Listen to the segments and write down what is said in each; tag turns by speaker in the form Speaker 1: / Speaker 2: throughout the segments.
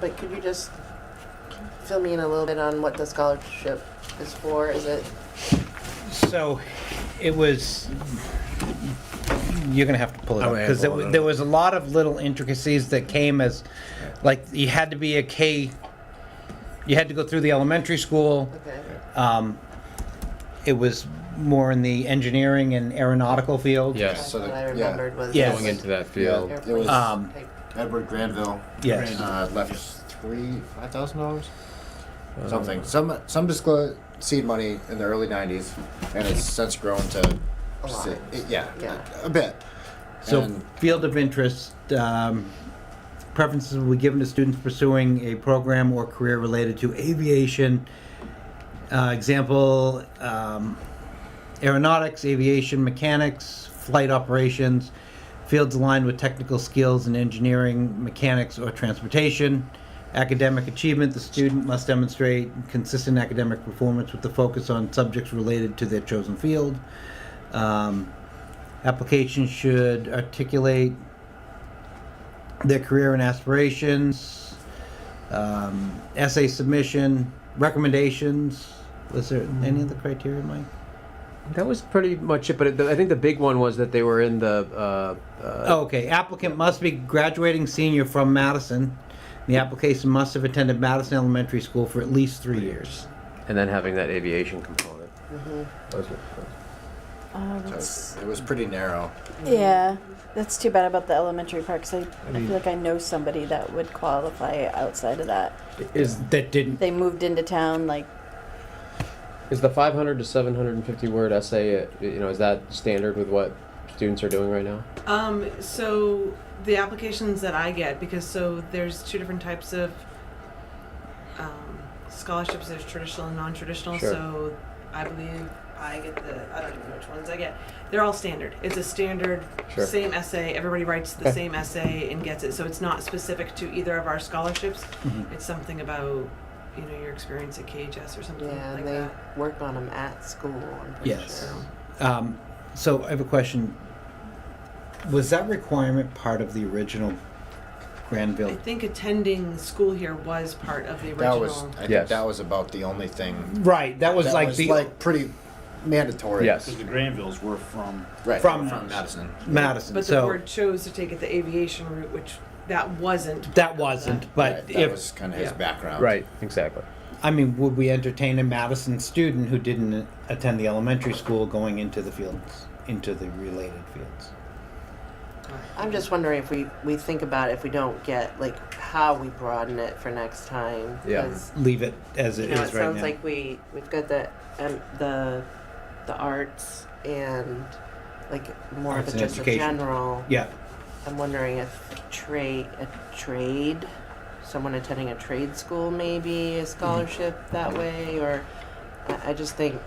Speaker 1: But could you just fill me in a little bit on what the scholarship is for? Is it,
Speaker 2: So it was, you're going to have to pull it up
Speaker 3: Oh, yeah,
Speaker 2: because
Speaker 3: pull it up.
Speaker 2: there was a lot of little intricacies that came as, like, you had to be a K, you had to go through the elementary school.
Speaker 1: okay,
Speaker 2: Um, It was more in the engineering and aeronautical field.
Speaker 4: Yes,
Speaker 1: that's what I remembered was.
Speaker 2: Yes.
Speaker 4: going into that field.
Speaker 1: airplanes
Speaker 3: It was-
Speaker 2: Um,
Speaker 1: type.
Speaker 3: Edward Granville.
Speaker 2: Yes.
Speaker 3: Uh, left three five thousand dollars,
Speaker 2: Uh,
Speaker 3: something. Some some disclosed seed money in the early '90s, and it's since grown to.
Speaker 1: A lot.
Speaker 3: si- it- yeah,
Speaker 1: Yeah.
Speaker 3: A, a bit.
Speaker 2: So,
Speaker 3: And-
Speaker 2: field of interest, um, preferences will be given to students pursuing a program or career related to aviation. Uh, example, um, aeronautics, aviation mechanics, flight operations, fields aligned with technical skills in engineering, mechanics, or transportation. Academic achievement, the student must demonstrate consistent academic performance with the focus on subjects related to their chosen field. Um, application should articulate their career and aspirations, um, essay submission, recommendations. Was there any other criteria, Mike?
Speaker 5: Mm-hmm.
Speaker 4: That was pretty much it, but it, I think the big one was that they were in the. Uh, uh,
Speaker 2: Oh, okay, applicant must be graduating senior from Madison. The application must have attended Madison Elementary School for at least three years.
Speaker 4: And then having that aviation component.
Speaker 2: Mm-hmm.
Speaker 6: Oh, that's,
Speaker 3: so it was pretty narrow.
Speaker 6: yeah, that's too bad about the elementary part because I, I feel like I know somebody that would qualify outside of that.
Speaker 5: Is that didn't
Speaker 6: They moved into town like
Speaker 7: Is the 500 to 750 word essay, uh, you know, is that standard with what students are doing right now?
Speaker 8: Um, so the applications that I get, because so there's two different types of um, scholarships. There's traditional and non-traditional.
Speaker 7: Sure.
Speaker 8: So I believe I get the I don't even know which ones I get. They're all standard. It's a standard
Speaker 7: Sure.
Speaker 8: same essay. Everybody writes the same essay and gets it. So it's not specific to either of our scholarships. It's something about you know your experience at KHS or something
Speaker 1: Yeah,
Speaker 8: like
Speaker 1: and they
Speaker 8: that.
Speaker 1: work on them at school, I'm pretty
Speaker 2: Yes.
Speaker 1: sure.
Speaker 2: Um, so I have a question. Was that requirement part of the original
Speaker 8: I
Speaker 2: Granville?
Speaker 8: think attending school here was part of the original.
Speaker 3: That was. I think
Speaker 7: Yes.
Speaker 3: that was about the only thing.
Speaker 2: Right, that was
Speaker 3: that
Speaker 2: like
Speaker 3: was
Speaker 2: the
Speaker 3: like pretty mandatory.
Speaker 7: Yes.
Speaker 5: because the Granvilles were from
Speaker 3: Right.
Speaker 2: From-
Speaker 3: Madison.
Speaker 2: Madison.
Speaker 8: But the
Speaker 2: so
Speaker 8: board chose to take it the aviation route, which that wasn't. part
Speaker 2: that
Speaker 8: of
Speaker 2: wasn't.
Speaker 8: that.
Speaker 2: But
Speaker 3: Right, that
Speaker 2: if
Speaker 3: was kind of his
Speaker 8: yeah.
Speaker 3: background.
Speaker 7: exactly.
Speaker 2: I mean, would we entertain a Madison student who didn't attend the elementary school going into the fields, into the related fields?
Speaker 1: I'm just wondering if we, we think about if we don't get, like, how we broaden it for next time.
Speaker 7: Yeah.
Speaker 1: 'cause,
Speaker 2: Leave it as
Speaker 1: You
Speaker 2: it is
Speaker 1: know,
Speaker 2: right
Speaker 1: it sounds
Speaker 2: now.
Speaker 1: like we, we've got the, um, the, the arts and, like, more of
Speaker 2: Arts
Speaker 1: a
Speaker 2: and
Speaker 1: just a
Speaker 2: education.
Speaker 1: general.
Speaker 2: yeah,
Speaker 1: I'm wondering if trade, a trade, someone attending a trade school maybe a scholarship that way, or I, I just think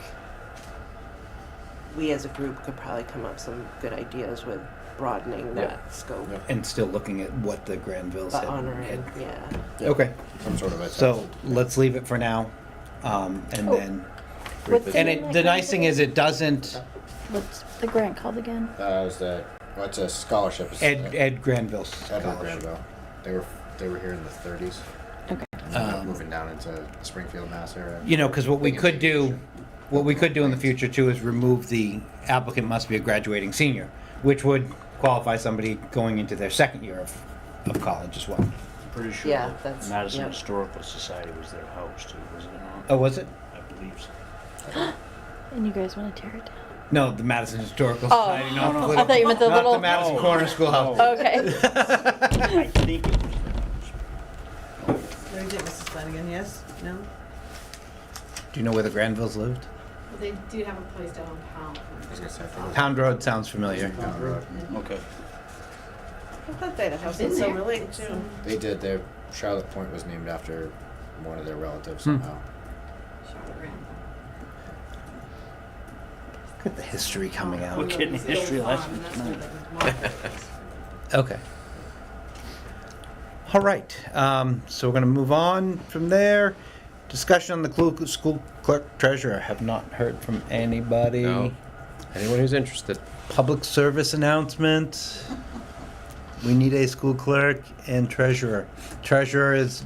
Speaker 1: we as a group could probably come up some good ideas with broadening
Speaker 7: Yeah.
Speaker 1: that scope,
Speaker 3: Yeah.
Speaker 2: and still looking at what the Granvilles
Speaker 1: but
Speaker 2: had.
Speaker 1: honoring,
Speaker 2: had-
Speaker 1: yeah.
Speaker 3: Yeah.
Speaker 2: Okay,
Speaker 3: Some sort of a.
Speaker 2: so let's leave it for now, um, and
Speaker 6: Oh.
Speaker 2: then
Speaker 6: what's
Speaker 2: and
Speaker 6: name of
Speaker 2: it,
Speaker 6: that
Speaker 2: the
Speaker 6: grant
Speaker 2: nice thing
Speaker 6: again?
Speaker 2: is it doesn't
Speaker 6: what's the grant called again?
Speaker 3: That was the. What's a scholarship?
Speaker 2: Ed Ed Granville's
Speaker 3: Edward
Speaker 2: scholarship.
Speaker 3: Granville. They were they were here in the 30s.
Speaker 6: Okay.
Speaker 3: And ended up moving down into Springfield, Mass area.
Speaker 2: You know, because what we
Speaker 3: Thinking
Speaker 2: could do,
Speaker 3: future.
Speaker 2: what we could do in the future too is remove the applicant must be a graduating senior, which would qualify somebody going into their second year of, of college as well.
Speaker 5: pretty sure
Speaker 1: Yeah,
Speaker 5: that
Speaker 1: that's-
Speaker 5: Madison
Speaker 1: yep.
Speaker 5: Historical Society was their house too, wasn't it not?
Speaker 2: Oh, was it?
Speaker 5: I believe so.
Speaker 6: And you guys want to tear it down? Oh,
Speaker 2: No, the Madison Historical Society. not the
Speaker 6: I thought you meant the
Speaker 2: not
Speaker 6: little. Oh.
Speaker 2: the Madison Corner Schoolhouse.
Speaker 6: okay.
Speaker 5: I think it was their house.
Speaker 8: What do you think, Mrs. Flanagan? Yes? No?
Speaker 2: Do you know where the Granvilles lived?
Speaker 9: They do have a place down on Pound.
Speaker 3: I was gonna say, I forgot.
Speaker 2: Pound Road sounds familiar.
Speaker 3: Pound Road.
Speaker 5: Okay.
Speaker 8: I thought they had a house
Speaker 9: Been
Speaker 8: in
Speaker 9: there.
Speaker 8: Silver Lake too.
Speaker 3: They did. Their Charlotte Point was named after one of their relatives somehow.
Speaker 9: Charlotte Randall.
Speaker 2: Look at the history coming
Speaker 5: We're
Speaker 2: out.
Speaker 5: getting history lessons tonight.
Speaker 2: Okay. All right, um, so we're gonna move on from there. Discussion on the clu- school clerk treasurer. Have not heard from anybody.
Speaker 7: No. Anyone who's interested.
Speaker 2: Public service announcement. We need a school clerk and treasurer. Treasurer is